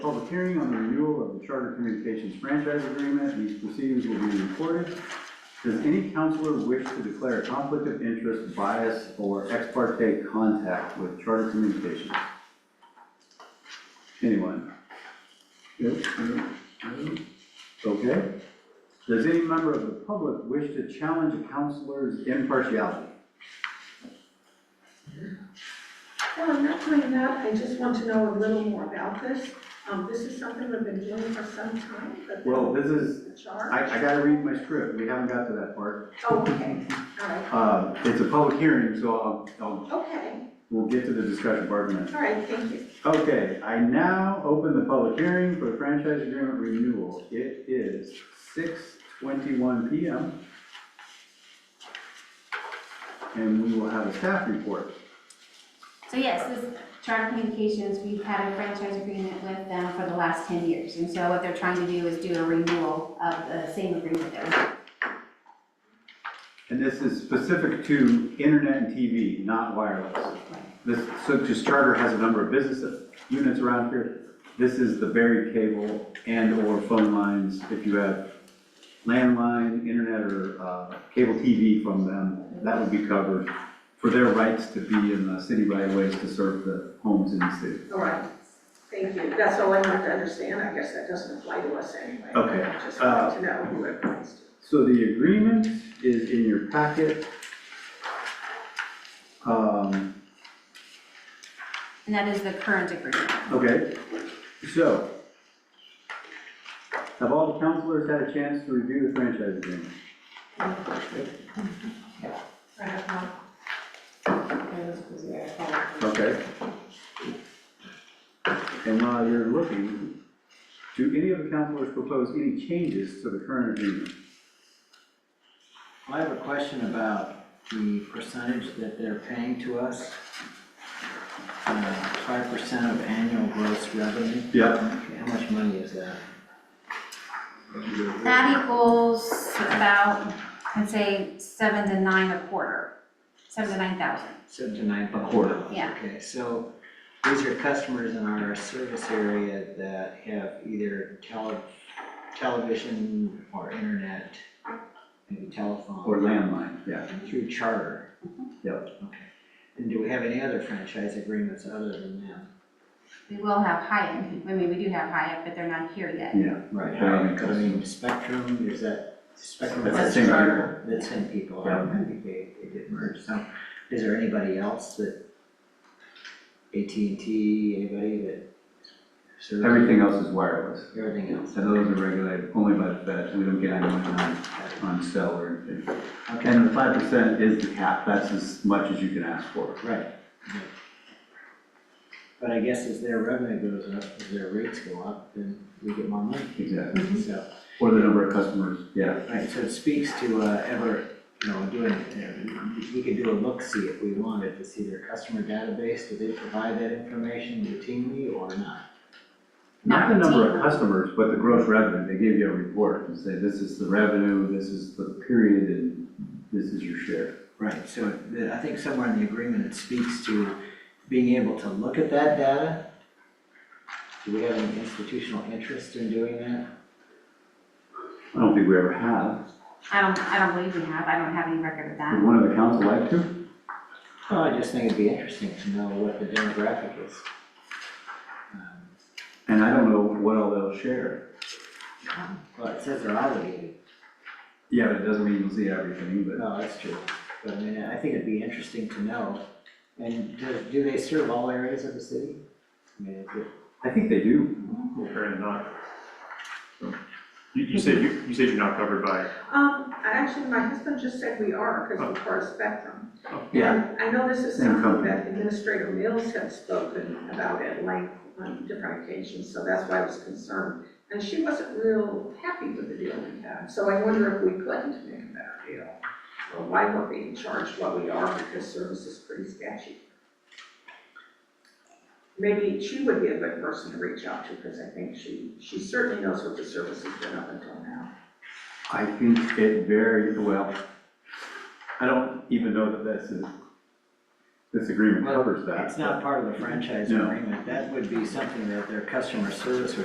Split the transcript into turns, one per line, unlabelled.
Public hearing on the renewal of the Charter Communications franchise agreement. These proceedings will be recorded. Does any counselor wish to declare a conflict of interest, bias, or ex parte contact with Charter Communications? Anyone? Yes, I don't- I don't. Okay. Does any member of the public wish to challenge a counselor's impartiality?
Well, I'm not doing that, I just want to know a little more about this. Um, this is something we've been doing for some time, but.
Well, this is,
The charge?
I, I gotta read my script. We haven't got to that part.
Oh, okay, all right,
Uh, it's a public hearing, so I'll, I'll
okay,
We'll get to the discussion part in a minute.
all right, thank you.
Okay, I now open the public hearing for the franchise agreement renewal. It is six twenty-one PM. And we will have a staff report.
So yes, this Charter Communications, we've had a franchise agreement with them for the last ten years. And so what they're trying to do is do a renewal of the same agreement that was,
And this is specific to internet and TV, not wireless. This, so just Charter has a number of business units around here. This is the buried cable and/or phone lines. If you have landline, internet, or uh, cable TV from them, that would be covered for their rights to be in the city right of ways to serve the homes in the city.
All right, thank you, that's all I wanted to understand, I guess that doesn't apply to us anyway.
Okay,
I Just wanted to know who it applies to.
So the agreement is in your packet. Um,
and that is the current agreement.
Okay, so, have all the counselors had a chance to review the franchise agreement?
I have not.
Okay. And while you're looking, do any of the counselors propose any changes to the current agreement?
I have a question about the percentage that they're paying to us. Uh, Five percent of annual gross revenue.
Yep.
Okay, How much money is that?
That equals about, I'd say, seven to nine a quarter, seven to nine thousand.
Seven to nine. A quarter.
Yeah.
Okay, so these are customers in our service area that have either tele, television or internet, maybe telephone.
Or landline, yeah.
Through charter.
Yep.
Okay. And do we have any other franchise agreements other than that?
We will have Hyatt, I mean, we do have Hyatt, but they're not here yet.
Right.
They're all in
I mean, Spectrum, is that Spectrum?
That's
has
the same
Charter? The same people,
Yeah.
I remember they, they did merge, so is there anybody else that? AT&T, anybody that? serves-
Everything else is wireless,
Everything else,
and those are regulated only by the feds, we don't get anyone on, on cell or anything.
okay,
And the five percent is the cap, that's as much as you can ask for.
right. right. But I guess as their revenue goes up, as their rates go up, then we get more money,
Exactly.
so.
Or the number of customers, yeah.
Right, so it speaks to uh, ever, you know, doing, uh, we could do a look-see if we wanted to see their customer database, do they provide that information routinely or not?
Not the number of
Not
customers, but the gross revenue, they give you a report and say, this is the revenue, this is the period, and this is your share.
Right, so the- I think somewhere in the agreement, it speaks to being able to look at that data. Do we have any institutional interest in doing that?
I don't think we ever have.
I don't, I don't believe we have, I don't have any record of
Would
that.
one of the council like to?
Well, Oh, I just think it'd be interesting to know what the demographic is. Um,
And I don't know what all they'll share.
Well, it says they're obligated
Yeah, but it doesn't mean you'll see everything, but
No, Oh, that's true, but I mean, I think it'd be interesting to know, and do, do they serve all areas of the city? I mean, is it-
I think they do.
Apparently not. So, You, you said, you, you said you're not covered by,
Um, actually, my husband just said we are, because we're part of Spectrum. And I know this is
Same
something
company.
that Administrator Mills had spoken about at length on different occasions, so that's why I was concerned. And she wasn't real happy with the deal we had, so I wonder if we couldn't make a better deal. Or why we're being charged what we are, because service is pretty sketchy. Maybe she would be a good person to reach out to, because I think she, she certainly knows what the service has been up until now.
I think it very well, I don't even know that that's a This agreement
Well,
covers that.
It's not part of the franchise
No.
agreement, that would be something that their customer service would